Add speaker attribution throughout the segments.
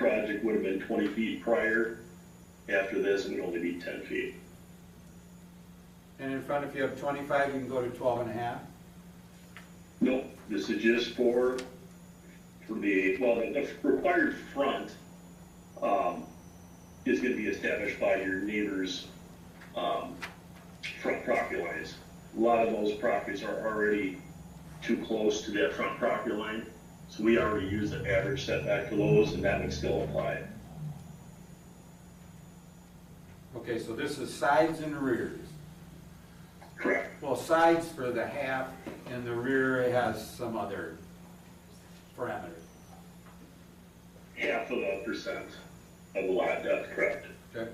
Speaker 1: it would have been twenty feet prior. After this, it would only be ten feet.
Speaker 2: And in front, if you have twenty-five, you can go to twelve and a half?
Speaker 1: Nope, this is just for, for the, well, the the required front, um, is gonna be established by your neighbor's, um, front property lines. A lot of those properties are already too close to that front property line, so we already use the average setback for those, and that would still apply.
Speaker 2: Okay, so this is sides and rears.
Speaker 1: Correct.
Speaker 2: Well, sides for the half, and the rear has some other parameter.
Speaker 1: Half of a percent of the lot depth, correct?
Speaker 2: Okay?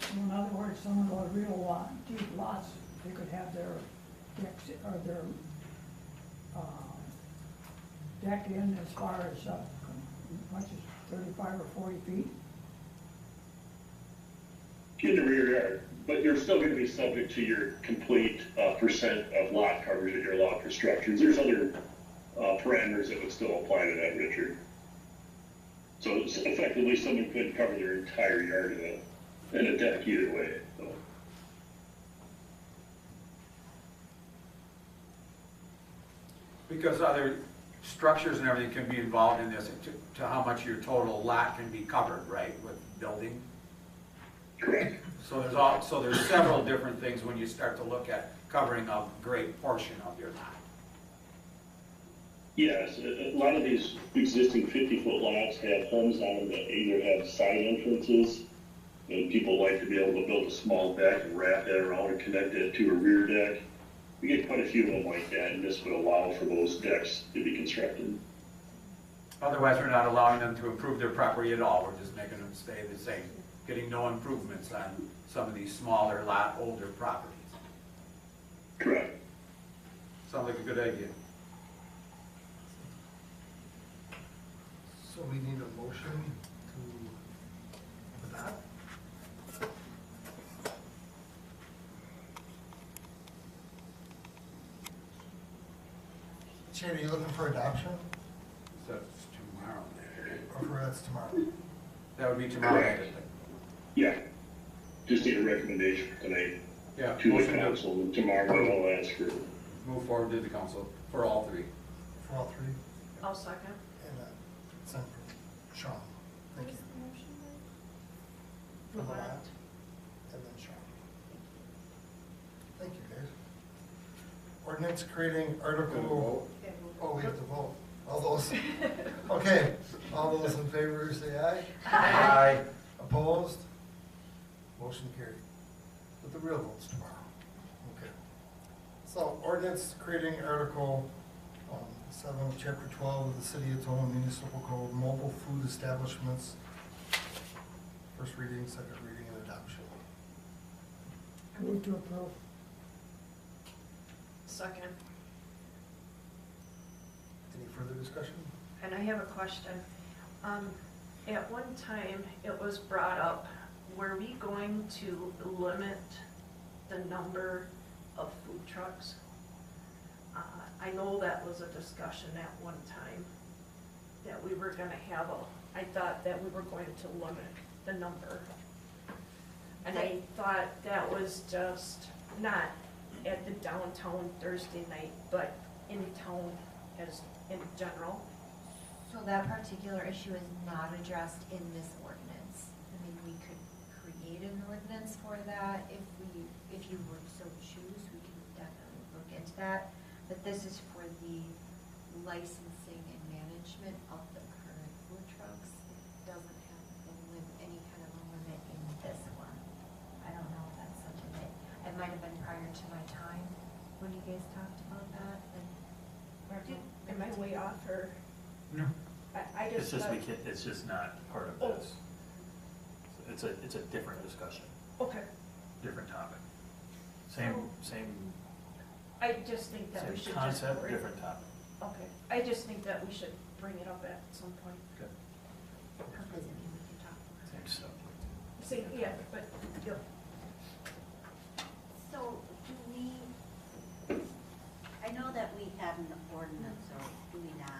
Speaker 3: So in other words, someone with real lot, deep lots, they could have their decks, or their, um, deck in as far as, uh, much as thirty-five or forty feet.
Speaker 1: in the rear yard, but you're still gonna be subject to your complete, uh, percent of lot coverage in your lot for structures. There's other, uh, parameters that would still apply to that, Richard. So it's effectively, someone could cover their entire yard in a, in a deck either way, so.
Speaker 2: Because other structures and everything can be involved in this, to, to how much your total lot can be covered, right, with building?
Speaker 1: Correct.
Speaker 2: So there's all, so there's several different things when you start to look at covering a great portion of your lot.
Speaker 1: Yes, a a lot of these existing fifty-foot lots have homes on them that either have side entrances, and people like to be able to build a small deck and wrap that around and connect it to a rear deck. We get quite a few of them like that, and this would allow for those decks to be constructed.
Speaker 2: Otherwise, we're not allowing them to improve their property at all, we're just making them stay the same, getting no improvements on some of these smaller lot, older properties.
Speaker 1: Correct.
Speaker 2: Sounds like a good idea.
Speaker 4: So we need a motion to adopt? Shane, are you looking for adoption,
Speaker 2: So it's tomorrow.
Speaker 4: or for that's tomorrow?
Speaker 2: That would be tomorrow. I think.
Speaker 1: Yeah. Just need a recommendation for tonight
Speaker 2: Yeah,
Speaker 1: to the
Speaker 2: motion to
Speaker 1: council, and tomorrow I'll ask for,
Speaker 2: move forward to the council for all three.
Speaker 4: For all three,
Speaker 5: I'll second.
Speaker 4: and uh, send for Sean, thank you. For the lab, and then Sean. Thank you, guys. Ordinance creating Article Oh, we have to vote. All those, okay, all those in favor say aye.
Speaker 2: Aye.
Speaker 4: Opposed? Motion carried. But the real vote's tomorrow. Okay. So ordinance creating Article um, 7, of Chapter 12 of the City of Toledo Municipal Code, mobile food establishments. First reading, second reading, and adoption.
Speaker 3: I move to approve.
Speaker 5: Second.
Speaker 4: Any further discussion?
Speaker 5: And I have a question. Um, at one time, it was brought up, were we going to limit the number of food trucks? Uh, I know that was a discussion at one time, that we were gonna have a, I thought that we were going to limit the number. And I thought that was just not at the downtown Thursday night, but in town as, in general.
Speaker 6: So that particular issue is not addressed in this ordinance. I mean, we could create an ordinance for that if we, if you would so choose, we can definitely look into that. But this is for the licensing and management of the current food trucks. It doesn't have a lim- any kind of a limit in this one. I don't know if that's something that, it might have been prior to my time when you guys talked about that and.
Speaker 5: Am I way off or?
Speaker 7: No.
Speaker 5: I, I
Speaker 7: It's
Speaker 5: just.
Speaker 7: just, we
Speaker 5: thought-
Speaker 7: can't, it's just not part of
Speaker 5: Oh.
Speaker 7: this. It's a, it's a different discussion,
Speaker 5: Okay,
Speaker 7: different topic. Same, same,
Speaker 5: I just think that Oh. we
Speaker 7: same
Speaker 5: should just.
Speaker 7: concept,
Speaker 5: bring-
Speaker 7: different topic.
Speaker 5: Okay, I just think that we should bring it up at some point.
Speaker 6: Because I mean, we can talk about it.
Speaker 7: Same stuff.
Speaker 5: See, yeah, but, yeah.
Speaker 8: So do we, I know that we have an ordinance, or do we not,